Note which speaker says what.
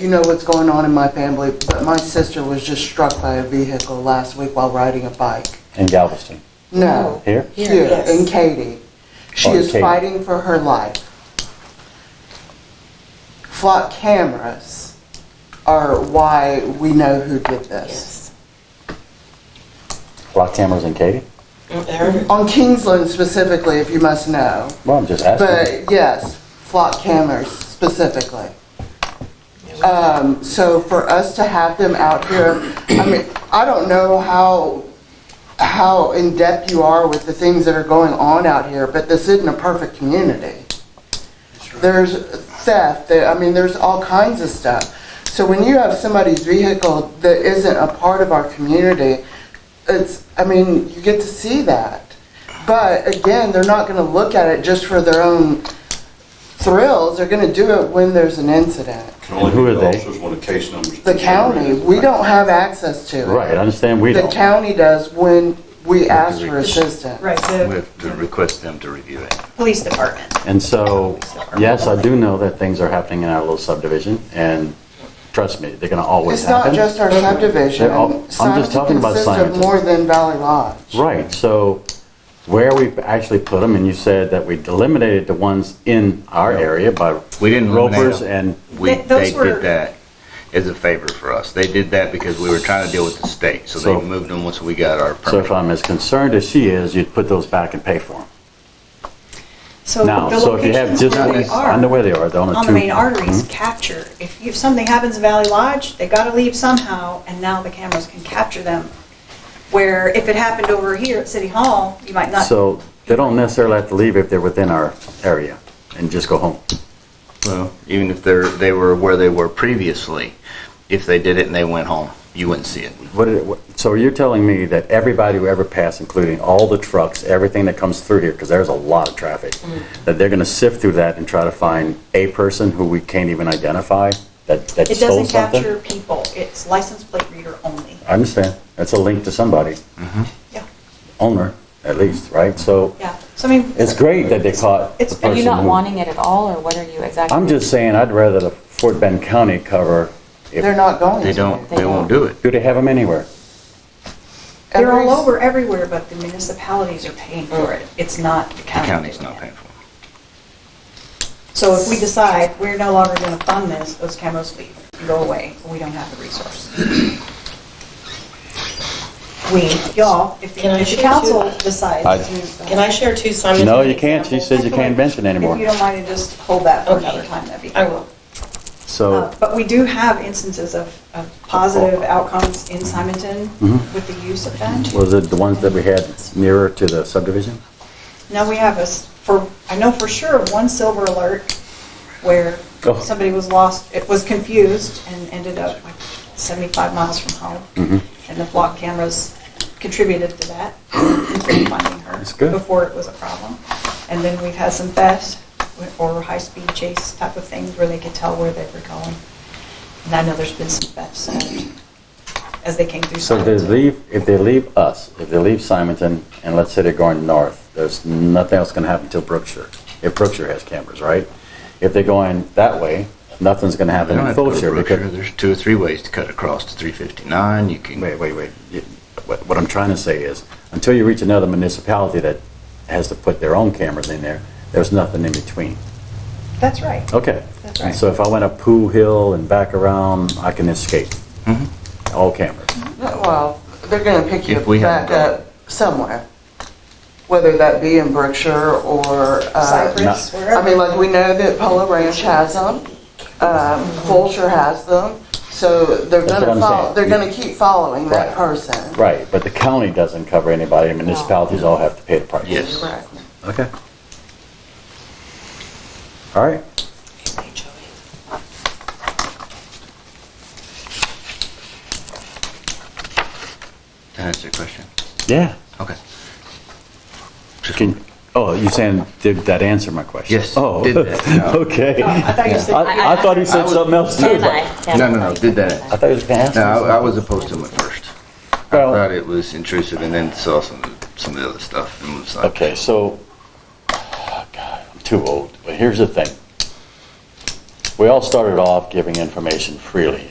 Speaker 1: You know what's going on in my family, but my sister was just struck by a vehicle last week while riding a bike.
Speaker 2: in Galveston.
Speaker 1: No.
Speaker 2: Here?
Speaker 1: Here,
Speaker 3: Oh, yes.
Speaker 1: in Katy. She
Speaker 2: Oh,
Speaker 1: is
Speaker 2: Katy.
Speaker 1: fighting for her life. Flock cameras are why we know who did this.
Speaker 3: Yes.
Speaker 2: Lock cameras in Katy?
Speaker 3: Eric?
Speaker 1: On Kingsland specifically, if you must know,
Speaker 2: Well, I'm just asking.
Speaker 1: but yes, flock cameras specifically. Um, so for us to have them out here, I mean, I don't know how, how in-depth you are with the things that are going on out here, but this isn't a perfect community. There's theft, there, I mean, there's all kinds of stuff. So when you have somebody's vehicle that isn't a part of our community, it's, I mean, you get to see that. But again, they're not gonna look at it just for their own thrills, they're gonna do it when there's an incident.
Speaker 4: Can only
Speaker 2: And who
Speaker 4: be
Speaker 2: are
Speaker 4: the
Speaker 2: they?
Speaker 4: officers when the case numbers.
Speaker 1: The county, we don't have access to it.
Speaker 2: Right, I understand we
Speaker 1: The
Speaker 2: don't.
Speaker 1: county does when we ask for assistance.
Speaker 5: Right,
Speaker 6: We
Speaker 5: the
Speaker 6: have to request them to review it.
Speaker 5: police department.
Speaker 2: And so, yes, I do know that things are happening in our little subdivision, and trust me, they're gonna always
Speaker 1: It's not
Speaker 2: happen.
Speaker 1: just our subdivision.
Speaker 2: They're all- I'm just
Speaker 1: Signage
Speaker 2: talking about
Speaker 1: consists of
Speaker 2: signage.
Speaker 1: More than Valley Lodge.
Speaker 2: Right, so where we actually put them, and you said that we eliminated the ones in our area by
Speaker 6: We didn't eliminate
Speaker 2: ropers
Speaker 6: them.
Speaker 2: and,
Speaker 6: We,
Speaker 5: Th- those
Speaker 6: they
Speaker 5: were-
Speaker 6: did that as a favor for us. They did that because we were trying to deal with the state, so
Speaker 2: So-
Speaker 6: they moved them once we got our
Speaker 2: so if
Speaker 6: permit.
Speaker 2: I'm as concerned as she is, you'd put those back and pay for them.
Speaker 5: So
Speaker 2: Now,
Speaker 5: the
Speaker 2: so if you have
Speaker 5: locations
Speaker 2: just,
Speaker 5: where they
Speaker 2: I know
Speaker 5: are,
Speaker 2: where they are, they're on a two. Hmm?
Speaker 5: on the main arteries, capture. If you- if something happens in Valley Lodge, they gotta leave somehow, and now the cameras can capture them. Where if it happened over here at City Hall, you might not,
Speaker 2: So they don't necessarily have to leave if they're within our area and just go home.
Speaker 6: Well, Even if they're, they were where they were previously, if they did it and they went home, you wouldn't see it.
Speaker 2: What, did it- what- so you're telling me that everybody who ever passed, including all the trucks, everything that comes through here, because there's a lot of traffic,
Speaker 5: Mm-hmm.
Speaker 2: that they're gonna sift through that and try to find a person who we can't even identify that, that
Speaker 5: it
Speaker 2: stole
Speaker 5: doesn't
Speaker 2: something?
Speaker 5: capture people. It's license plate reader only.
Speaker 2: I understand. That's a link to somebody,
Speaker 5: Yeah,
Speaker 2: owner, at least, right? So
Speaker 5: yeah. So I mean,
Speaker 2: it's great that they caught the
Speaker 5: It's-
Speaker 2: person
Speaker 7: Are you not
Speaker 2: who-
Speaker 7: wanting it at all, or what are you exactly?
Speaker 2: I'm just saying, I'd rather the Fort Bend County cover. if-
Speaker 1: They're not going to.
Speaker 6: They don't,
Speaker 7: They
Speaker 6: they won't do
Speaker 7: don't.
Speaker 6: it.
Speaker 2: Do they have them anywhere?
Speaker 5: they're
Speaker 1: Every-
Speaker 5: all over everywhere, but the municipalities are paying for it. It's not the
Speaker 6: The
Speaker 5: county.
Speaker 6: county's
Speaker 5: doing
Speaker 6: not
Speaker 5: it.
Speaker 6: paying for it.
Speaker 5: So if we decide we're no longer going to fund this, those cameras leave, go away, we don't have the resource. We, y'all, if
Speaker 3: Can I
Speaker 5: the if the
Speaker 3: share
Speaker 5: council
Speaker 3: two?
Speaker 2: I-
Speaker 5: decides to,
Speaker 3: Can I share two simultaneous?
Speaker 2: No, you can't. She
Speaker 3: examples?
Speaker 2: says you can't mention anymore.
Speaker 5: if you don't mind to just hold that for another
Speaker 3: Okay.
Speaker 5: time, that'd be.
Speaker 3: I will.
Speaker 2: So,
Speaker 5: Uh, But we do have instances of, of positive outcomes in Simonton
Speaker 2: Mhm.
Speaker 5: with the use of that.
Speaker 2: was it the ones that we had nearer to the subdivision?
Speaker 5: Now we have a, s- for, I know for sure, of one silver alert where
Speaker 2: Oh.
Speaker 5: somebody was lost, it was confused and ended up like 75 miles from home.
Speaker 2: Mhm.
Speaker 5: And the flock cameras contributed to that, in finding her.
Speaker 2: That's good.
Speaker 5: Before it was a problem. And then we've had some theft or high-speed chase type of things where they could tell where they were going. And I know there's been some thefts as they came through.
Speaker 2: So if they
Speaker 5: Simonton.
Speaker 2: leave, if they leave us, if they leave Simonton, and let's say they're going north, there's nothing else gonna happen until Brookshire, if Brookshire has cameras, right? If they're going that way, nothing's gonna
Speaker 6: They
Speaker 2: happen in
Speaker 6: don't have to go to
Speaker 2: Fulshire
Speaker 6: Brookshire.
Speaker 2: because.
Speaker 6: There's two or three ways to cut across to 359. You can,
Speaker 2: Wait, wait, wait. You- What, what I'm trying to say is, until you reach another municipality that has to put their own cameras in there, there's nothing in between.
Speaker 5: That's right.
Speaker 2: Okay.
Speaker 5: That's right.
Speaker 2: So if I went up Pooh Hill and back around, I can escape.
Speaker 6: Mm-hmm.
Speaker 2: All cameras.
Speaker 1: No, Well, they're gonna pick you
Speaker 6: If we
Speaker 1: back
Speaker 6: haven't got-
Speaker 1: up somewhere, whether that be in Berkshire or, uh,
Speaker 5: Cypress, wherever.
Speaker 1: I mean, like, we know that Polo Ranch has them, um,
Speaker 5: Mm-hmm.
Speaker 1: Fulshire has them, so they're
Speaker 2: That's what
Speaker 1: gonna
Speaker 2: I'm
Speaker 1: follow,
Speaker 2: saying.
Speaker 1: they're gonna keep following that
Speaker 2: Right.
Speaker 1: person.
Speaker 2: Right, but the county doesn't cover anybody, and municipalities all have to pay the price.
Speaker 6: yes.
Speaker 1: Correct.
Speaker 2: Okay. All right.
Speaker 6: That answer your question?
Speaker 2: Yeah.
Speaker 6: Okay. Just
Speaker 2: Can, oh, you saying, did that answer my question?
Speaker 6: Yes,
Speaker 2: Oh,
Speaker 6: did that.
Speaker 2: okay.
Speaker 5: I thought you said.
Speaker 2: I I thought he said something else too.
Speaker 7: Can
Speaker 2: I
Speaker 7: I? Can
Speaker 6: No,
Speaker 7: I?
Speaker 6: no, no, did that.
Speaker 2: thought he was gonna ask.
Speaker 6: No,
Speaker 2: me
Speaker 6: I, I
Speaker 2: something.
Speaker 6: was opposed to them at first. I
Speaker 2: Well,
Speaker 6: thought it was intrusive, and then saw some some of the other stuff and was like,
Speaker 2: okay, oh, so, God, I'm too old, but here's the thing. we all started off giving information freely.